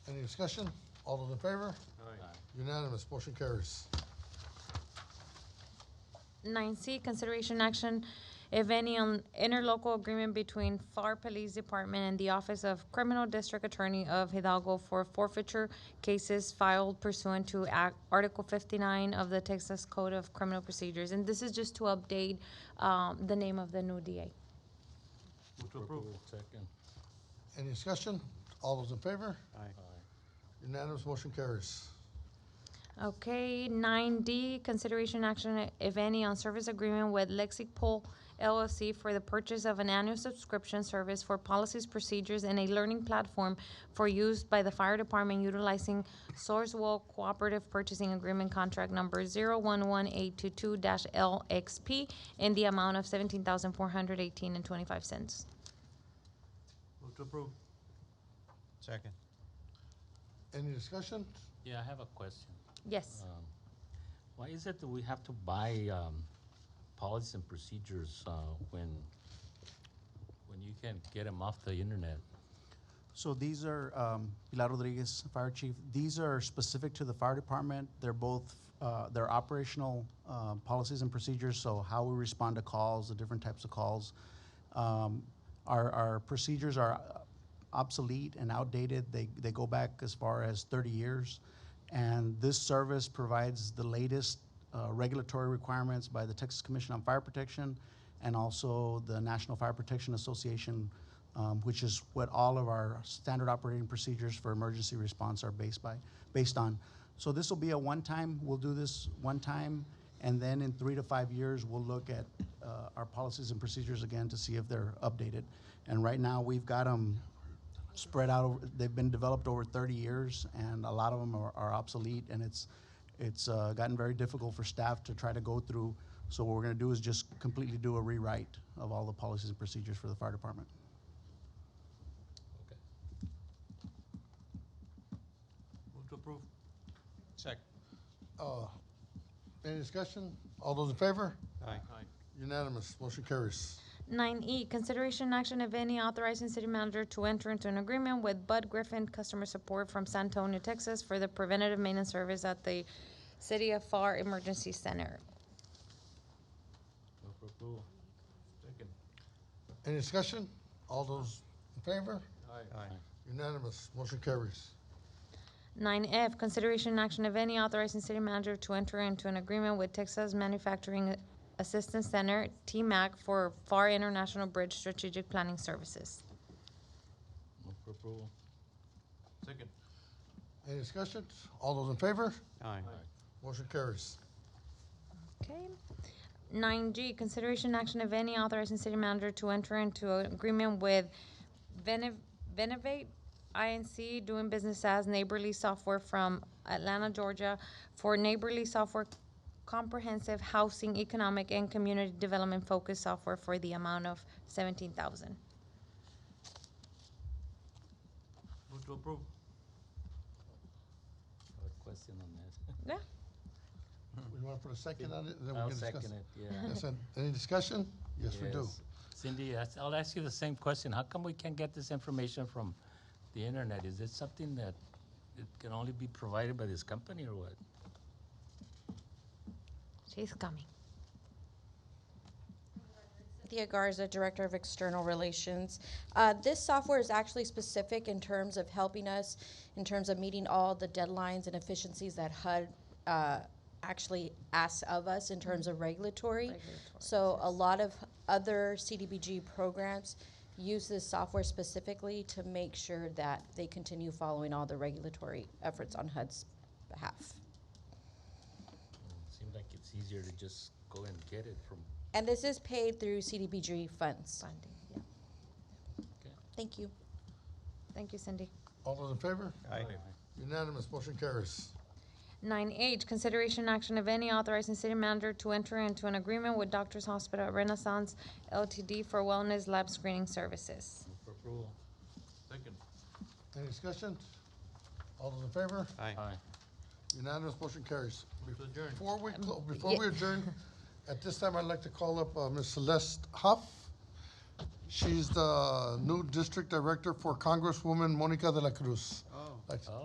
Any discussion? All those in favor? Unanimous, motion carries. Nine C, consideration action, if any, on interlocal agreement between FAR Police Department and the Office of Criminal District Attorney of Hidalgo for forfeiture cases filed pursuant to Act, Article fifty-nine of the Texas Code of Criminal Procedures. And this is just to update, um, the name of the new DA. Move to approve. Second. Any discussion? All those in favor? Unanimous, motion carries. Okay, nine D, consideration action, if any, on service agreement with Lexipol LLC for the purchase of an annual subscription service for policies, procedures, and a learning platform for use by the fire department utilizing Sourcewell Cooperative Purchasing Agreement Contract Number zero one one eight two two LXP in the amount of seventeen thousand four hundred eighteen and twenty-five cents. Move to approve. Second. Any discussion? Yeah, I have a question. Yes. Um, Why is it that we have to buy um, policies and procedures uh, when, when you can get them off the internet? So these are, um, Pilar Rodriguez, Fire Chief, these are specific to the fire department. They're both, uh, they're operational uh, policies and procedures, so how we respond to calls, the different types of calls. Um, Our, our procedures are obsolete and outdated. They, they go back as far as 30 years. And this service provides the latest uh, regulatory requirements by the Texas Commission on Fire Protection and also the National Fire Protection Association, um, which is what all of our standard operating procedures for emergency response are based by, based on. So this will be a one-time, we'll do this one time, and then in three to five years, we'll look at uh, our policies and procedures again to see if they're updated. And right now, we've got them spread out. Over, they've been developed over 30 years, and a lot of them are, are obsolete. And it's it's uh, gotten very difficult for staff to try to go through. So what we're going to do is just completely do a rewrite of all the policies and procedures for the fire department. Okay. Move to approve. Second. Uh, Any discussion? All those in favor? Aye. Unanimous, motion carries. Nine E, consideration action, if any, authorizing city manager to enter into an agreement with Bud Griffin Customer Support from San Antonio, Texas for the preventative maintenance service at the City of FAR Emergency Center. Move for approval. Second. Any discussion? All those in favor? Aye. Unanimous, motion carries. Nine F, consideration action, if any, authorizing city manager to enter into an agreement with Texas Manufacturing Assistance Center, TMAC, for FAR International Bridge Strategic Planning Services. Move for approval. Second. Any discussion? All those in favor? Aye. Motion carries. Okay. Nine G, consideration action of any authorizing city manager to enter into an agreement with Venev- Venivate INC doing business as Neighborly Software from Atlanta, Georgia for Neighborly Software Comprehensive Housing, Economic, and Community Development Focused Software for the amount of seventeen thousand. Move to approve. I have a question on that. Yeah, We want to put a second on it, and then we I'll can discuss. second it. it, yeah. Yes, and- Any discussion? Yes, we do. Yes. Cindy, I s- I'll ask you the same question. How come we can't get this information from the internet? Is it something that it can only be provided by this company or what? she's coming. Thea Garza, Director of External Relations. Uh, This software is actually specific in terms of helping us, in terms of meeting all the deadlines and efficiencies that HUD uh, actually asks of us in terms of regulatory. So a lot of other CDBG programs use this software specifically to make sure that they continue following all the regulatory efforts on HUD's behalf. Seems like it's easier to just go and get it from, And this is paid through CDBG funds. Funding, yeah. Thank you. Thank you, Cindy. All those in favor? Aye. Unanimous, motion carries. Nine H, consideration action of any authorizing city manager to enter into an agreement with Doctors Hospital Renaissance LTD for wellness lab screening services. move for approval. Second. Any discussion? All those in favor? Aye. Unanimous, motion carries. Move to adjourn. Before we, clo- before we adjourn, at this time, I'd like to call up uh, Ms. Celeste Huff. She's the new District Director for Congresswoman Monica de la Cruz. Like to